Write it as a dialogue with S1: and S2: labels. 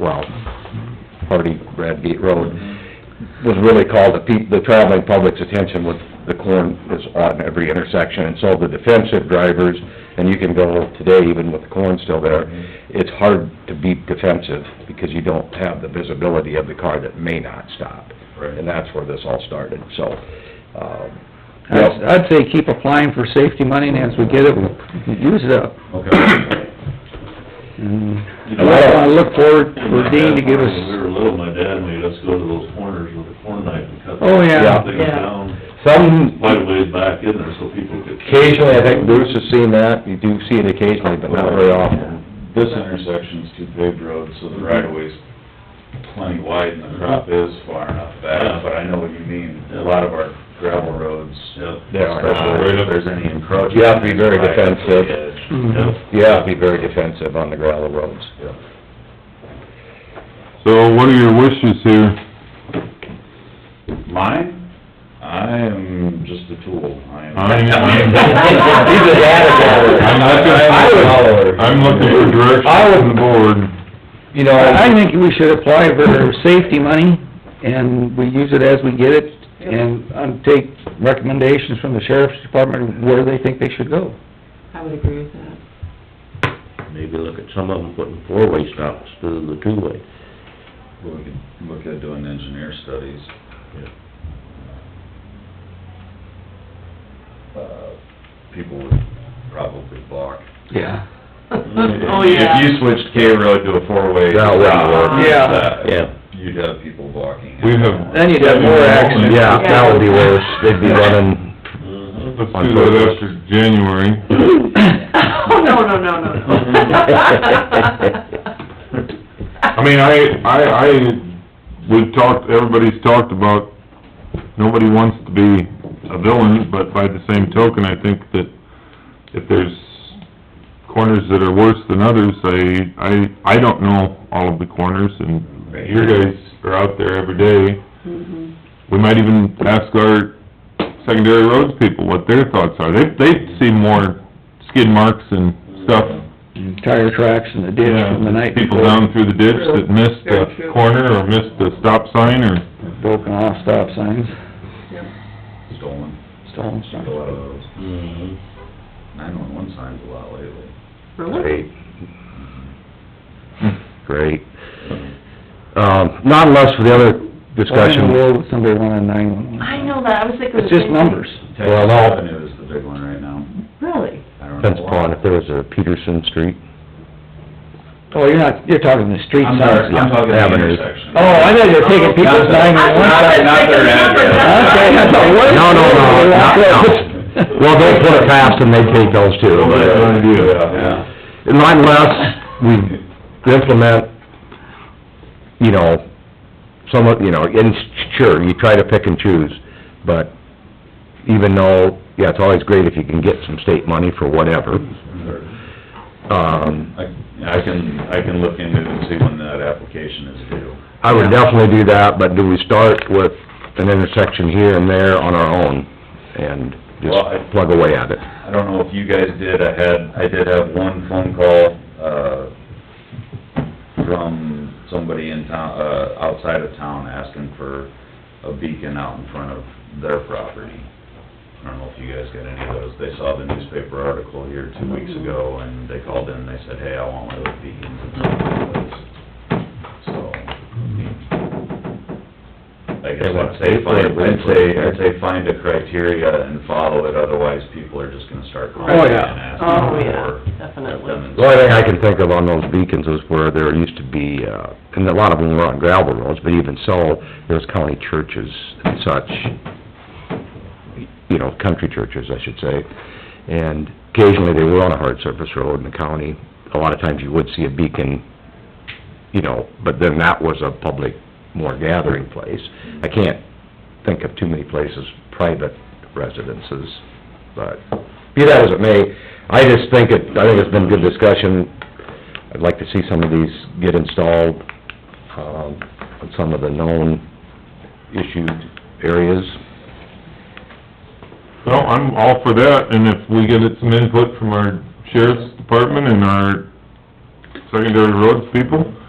S1: well, Hardy Bradgate Road, was really called the peop, the traveling public's attention with the corn is on every intersection, and so the defensive drivers, and you can go today even with the corn still there, it's hard to be defensive because you don't have the visibility of the car that may not stop.
S2: Right.
S1: And that's where this all started, so, um,
S3: I'd, I'd say keep applying for safety money, and as we get it, we use it up.
S2: Okay.
S3: And
S4: Mm-hmm.
S3: I wanna look forward for Dean to give
S2: When we
S3: us,
S2: were little, my dad made us go to those corners with a corn knife and cut.
S3: oh, yeah.
S2: Things
S5: Yeah.
S2: down,
S1: some
S2: quite a ways back in there so people could.
S1: Occasionally, I think Bruce has seen that, you do see it occasionally, but not very often.
S4: This intersection's two paved roads, so the right of way's plenty wide and the crop is far enough back, but I know what you mean. A lot of our gravel roads,
S2: Yep.
S1: They are not.
S4: especially if there's any encroachment.
S1: You have to be very
S4: right up to the
S1: defensive. Mm-hmm.
S4: edge.
S3: Mhm.
S2: Yep.
S1: You have to be very defensive on the gravel roads.
S6: So what are your wishes here?
S4: Mine, I am just a tool. I am.
S6: I'm-
S1: He's a data gatherer.
S6: I'm looking-
S1: I would-
S6: I'm looking for
S1: I
S6: direction from the
S1: would-
S6: board.
S1: You know,
S3: I I
S1: I,
S3: think we should apply for safety money, and we use it as we get it, and um, take recommendations from the sheriff's department where they think they should go.
S5: I would agree with that.
S7: maybe look at some of them putting four-way stops instead of the two-way.
S4: We could look at doing engineer studies. Uh, People would probably balk.
S3: Yeah.
S5: Oh, yeah.
S4: If you switched K road to a four-way.
S1: That wouldn't work.
S3: Yeah.
S4: that-
S7: Yeah.
S4: You'd have people balking.
S6: We have-
S3: Then you'd have more accidents.
S1: yeah, that would be worse, they'd be running,
S6: Let's do that after January.
S5: Oh, no, no, no, no, no.
S6: I mean, I, I, I, we've talked, everybody's talked about, nobody wants to be a villain, but by the same token, I think that if there's corners that are worse than others, I, I, I don't know all of the corners, and your guys are out there every day.
S5: Mm-hmm.
S6: We might even ask our secondary roads people what their thoughts are. They, they see more skid marks and stuff
S3: And Tire tracks in the ditch from the night
S6: People
S3: before,
S6: down through the ditch that missed
S5: Very
S6: the
S5: true.
S6: corner or missed the stop sign or,
S3: broken off stop signs,
S4: Stolen,
S3: stolen
S4: a
S3: signs.
S4: lot of those.
S7: Mm-hmm.
S4: Nine-one-one signs a lot lately.
S5: Really?
S1: great. Great. Um, not unless for the other
S3: Why in the
S1: discussion,
S3: world would somebody want a nine-one-one?
S5: I know that, I was thinking.
S3: It's just numbers.
S1: Well, no.
S4: Texas Avenue is the big one right now.
S5: Really?
S4: I don't know
S1: depends upon
S4: why.
S1: if there was a Peterson Street.
S3: Oh, you're not, you're talking the street
S4: I'm
S3: signs.
S4: sorry, I'm talking the
S1: Avenues.
S4: intersection.
S3: Oh, I thought you were taking people's
S4: Not the-
S3: nine-one-one
S4: not the-
S3: signs.
S4: not their address.
S3: Okay, I thought, what?
S1: No, no, no, not- no. Well, they put it past and they take those too, but
S4: Yeah.
S1: unless we implement, you know, some of, you know, and sure, you try to pick and choose, but even though, yeah, it's always great if you can get some state money for whatever, um,
S4: I, I can, I can look into it and see when that application is due.
S1: I would definitely do that, but do we start with an intersection here and there on our own and
S4: Well, I-
S1: just plug away at it?
S4: I don't know if you guys did, I had, I did have one phone call, uh, from somebody in town, uh, outside of town asking for a beacon out in front of their property. I don't know if you guys got any of those, they saw the newspaper article here two weeks ago, and they called in, and they said, hey, I want one of those beacons in front of my place. So, I guess I'd say, find, I'd say, I'd say find a criteria and follow it, otherwise people are just gonna start calling
S3: Oh,
S4: in
S3: yeah.
S4: and asking for.
S5: Oh, yeah, definitely.
S1: The only thing I can think of on those beacons was where there used to be, uh, and a lot of them were on gravel roads, but even so, there was county churches and such, you know, country churches, I should say, and occasionally they were on a hard surface road in the county. A lot of times you would see a beacon, you know, but then that was a public, more gathering place. I can't think of too many places, private residences, but be that as it may, I just think it, I think it's been good discussion. I'd like to see some of these get installed, um, on some of the known issued areas.
S6: well, I'm all for that, and if we get some input from our sheriff's department and our secondary roads people,